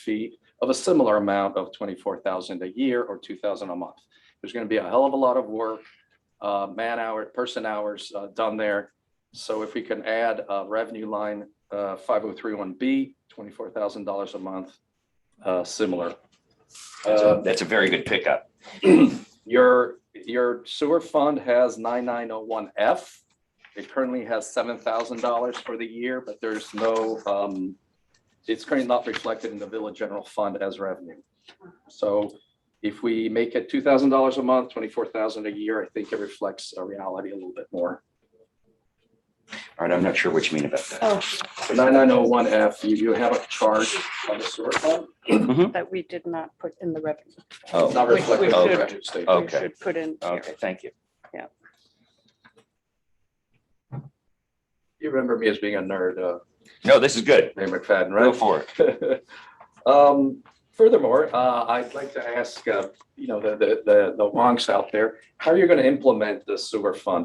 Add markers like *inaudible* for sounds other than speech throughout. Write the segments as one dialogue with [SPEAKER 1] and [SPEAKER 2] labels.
[SPEAKER 1] feet of a similar amount of twenty-four thousand a year or two thousand a month. There's gonna be a hell of a lot of work, uh, man hour, person hours, uh, done there. So if we can add a revenue line, uh, five oh three one B, twenty-four thousand dollars a month, uh, similar.
[SPEAKER 2] That's a-
[SPEAKER 1] Uh,
[SPEAKER 2] that's a very good pickup.
[SPEAKER 1] your, your sewer fund has nine nine oh one F. It currently has seven thousand dollars for the year, but there's no, um, it's currently not reflected in the village general fund as revenue. So if we make it two thousand dollars a month, twenty-four thousand a year, I think it reflects a reality a little bit more.
[SPEAKER 2] All right, I'm not sure what you mean about that.
[SPEAKER 3] Oh,
[SPEAKER 1] Nine nine oh one F, you, you have a charge on the sewer fund,
[SPEAKER 3] that we did not put in the revenue.
[SPEAKER 1] it's not
[SPEAKER 2] Mm-hmm. Oh,
[SPEAKER 3] We- we
[SPEAKER 1] reflected on the
[SPEAKER 2] should-
[SPEAKER 1] revenue statement.
[SPEAKER 3] We
[SPEAKER 2] Okay.
[SPEAKER 3] should Put in here.
[SPEAKER 2] okay, thank you.
[SPEAKER 1] You remember me as being a nerd, uh,
[SPEAKER 2] No, this is good.
[SPEAKER 1] Ray McFadden, right?
[SPEAKER 2] Go for it.
[SPEAKER 1] *laughs* Um, furthermore, uh, I'd like to ask, uh, you know, the, the, the, the wonks out there, how are you gonna implement the sewer fund?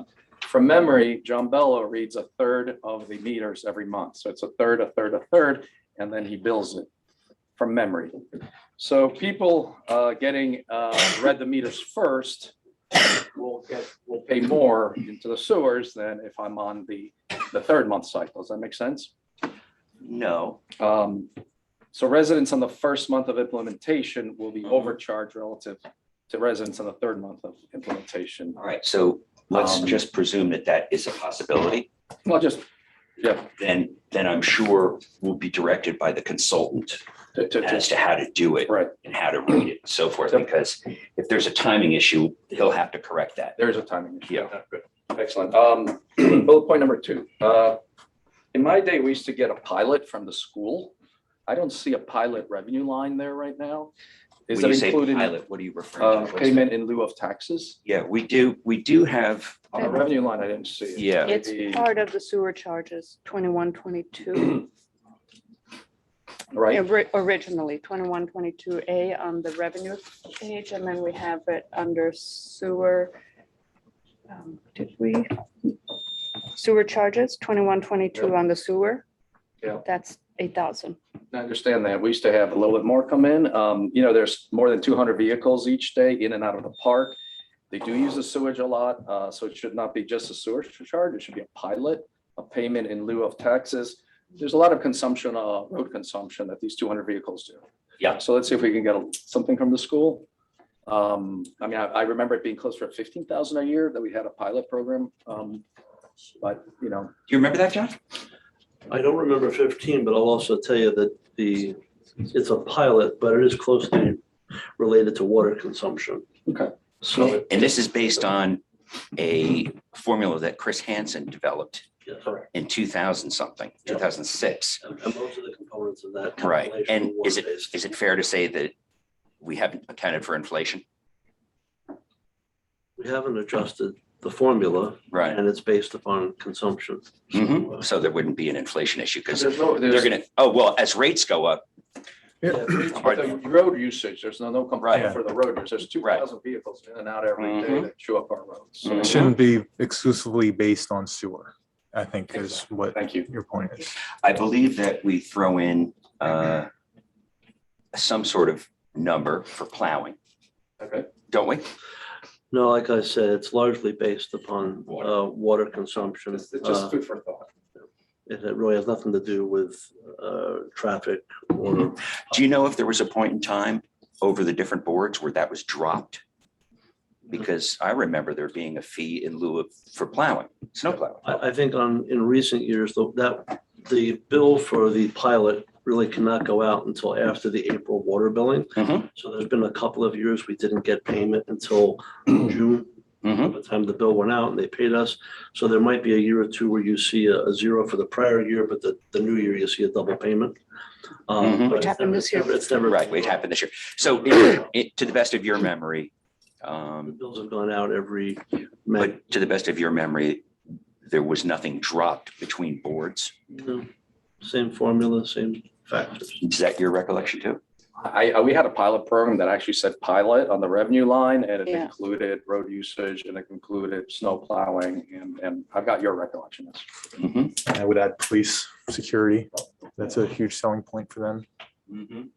[SPEAKER 1] From memory, John Bello reads a third of the meters every month, so it's a third, a third, a third, and then he bills it from memory. So people, uh, getting, uh, read the meters first will get, will pay more into the sewers than if I'm on the, the third month cycle. Does that make sense?
[SPEAKER 2] No.
[SPEAKER 1] Um, so residents on the first month of implementation will be
[SPEAKER 2] Mhm.
[SPEAKER 1] overcharged relative to residents on the third month of implementation.
[SPEAKER 2] All right, so let's
[SPEAKER 1] Um,
[SPEAKER 2] just presume that that is a possibility.
[SPEAKER 1] Well, just, yeah,
[SPEAKER 2] Then, then I'm sure we'll be directed by the consultant
[SPEAKER 1] to, to,
[SPEAKER 2] as
[SPEAKER 1] to,
[SPEAKER 2] to how to do it
[SPEAKER 1] right,
[SPEAKER 2] and how to read it and so forth,
[SPEAKER 1] Yep.
[SPEAKER 2] because if there's a timing issue, he'll have to correct that.
[SPEAKER 1] there's a timing issue.
[SPEAKER 2] Yeah.
[SPEAKER 1] Excellent. Um, *clears throat* bullet point number two, uh, in my day, we used to get a pilot from the school. I don't see a pilot revenue line there right now. Is
[SPEAKER 2] When
[SPEAKER 1] it
[SPEAKER 2] you say
[SPEAKER 1] included, in,
[SPEAKER 2] pilot, what are Um, you referring to?
[SPEAKER 1] uh,
[SPEAKER 2] What's that?
[SPEAKER 1] payment in lieu of taxes?
[SPEAKER 2] Yeah, we do, we do have, um,
[SPEAKER 1] On the
[SPEAKER 3] Okay.
[SPEAKER 1] revenue line, I didn't see it.
[SPEAKER 2] yeah,
[SPEAKER 1] Maybe-
[SPEAKER 3] It's part of the sewer charges, twenty-one, twenty-two,
[SPEAKER 1] Right,
[SPEAKER 3] ori- originally, twenty-one, twenty-two A on the revenue page, and then we have it under sewer. um, Did we? Sewer charges, twenty-one, twenty-two on the sewer.
[SPEAKER 1] Yeah.
[SPEAKER 3] That's eight thousand.
[SPEAKER 1] I understand that. We used to have a little bit more come in. Um, you know, there's more than two hundred vehicles each day in and out of the park. They do use the sewage a lot, uh, so it should not be just a sewer charge. It should be a pilot, a payment in lieu of taxes. There's a lot of consumption, uh, road consumption that these two hundred vehicles do.
[SPEAKER 2] Yeah.
[SPEAKER 1] So let's see if we can get a- something from the school. Um, I mean, I, I remember it being close to fifteen thousand a year that we had a pilot program. Um, but, you know,
[SPEAKER 2] do you remember that, John?
[SPEAKER 4] I don't remember fifteen, but I'll also tell you that the, it's a pilot, but it is closely related to water consumption.
[SPEAKER 1] Okay.
[SPEAKER 4] So,
[SPEAKER 2] And this is based on a formula that Chris Hansen developed
[SPEAKER 4] yeah,
[SPEAKER 2] in two thousand something, two thousand six.
[SPEAKER 4] and and most of the components of that.
[SPEAKER 2] Right,
[SPEAKER 4] calculation
[SPEAKER 2] and
[SPEAKER 4] were
[SPEAKER 2] is it,
[SPEAKER 4] water-based.
[SPEAKER 2] is it fair to say that we haven't accounted for inflation?
[SPEAKER 4] We haven't adjusted the formula
[SPEAKER 2] Right.
[SPEAKER 4] and it's based upon consumption.
[SPEAKER 2] Mhm. So there wouldn't be an inflation issue because
[SPEAKER 1] there's no,
[SPEAKER 2] they're
[SPEAKER 1] there's,
[SPEAKER 2] gonna, oh, well, as rates go up,
[SPEAKER 1] But
[SPEAKER 4] uh,
[SPEAKER 1] the road usage, there's no, no complaint
[SPEAKER 2] Right.
[SPEAKER 1] for the road, users. there's two
[SPEAKER 2] Right.
[SPEAKER 1] thousand vehicles in and out every day
[SPEAKER 2] Mhm.
[SPEAKER 1] that chew up our roads. So,
[SPEAKER 2] Mhm.
[SPEAKER 5] It shouldn't be exclusively based on sewer, I think is what
[SPEAKER 1] Thank you.
[SPEAKER 5] your point is.
[SPEAKER 2] I believe that we throw in uh some sort of number for plowing,
[SPEAKER 1] Okay,
[SPEAKER 2] don't we?
[SPEAKER 4] No, like I said, it's largely based upon
[SPEAKER 2] Water.
[SPEAKER 4] uh, water consumption.
[SPEAKER 1] it's it's
[SPEAKER 4] Uh,
[SPEAKER 1] just food for thought.
[SPEAKER 4] It it really has nothing to do with uh, traffic or
[SPEAKER 2] Do you know if there was a point in time over the different boards where that was dropped? Because I remember there being a fee in lieu of, for plowing, snow plowing.
[SPEAKER 4] I, I think on, in recent years, though, that, the bill for the pilot really cannot go out until after the April water billing.
[SPEAKER 2] Mhm.
[SPEAKER 4] So there's been a couple of years we didn't get payment until
[SPEAKER 2] Mm-hmm.
[SPEAKER 4] June, by
[SPEAKER 2] Mhm.
[SPEAKER 4] the time the bill went out and they paid us. So there might be a year or two where you see a, a zero for the prior year, but the, the new year you see a double payment. Um,
[SPEAKER 2] Mhm.
[SPEAKER 4] but
[SPEAKER 3] Which
[SPEAKER 4] it's
[SPEAKER 3] happened
[SPEAKER 4] never-
[SPEAKER 3] this year.
[SPEAKER 4] It's never.
[SPEAKER 2] Right, it happened this year. So *clears throat* it- it- to the best of your memory,
[SPEAKER 4] The
[SPEAKER 2] um,
[SPEAKER 4] bills have gone out every May.
[SPEAKER 2] but to the best of your memory, there was nothing dropped between boards.
[SPEAKER 4] Same formula, same factors.
[SPEAKER 2] Is that your recollection too?
[SPEAKER 1] I, I- we had a pilot program that actually said pilot on the revenue line and it
[SPEAKER 3] Yeah.
[SPEAKER 1] included road usage and it included snow plowing and, and I've got your recollection.
[SPEAKER 2] Mhm.
[SPEAKER 5] And I would add police security. That's a huge selling point for them.
[SPEAKER 2] Mhm.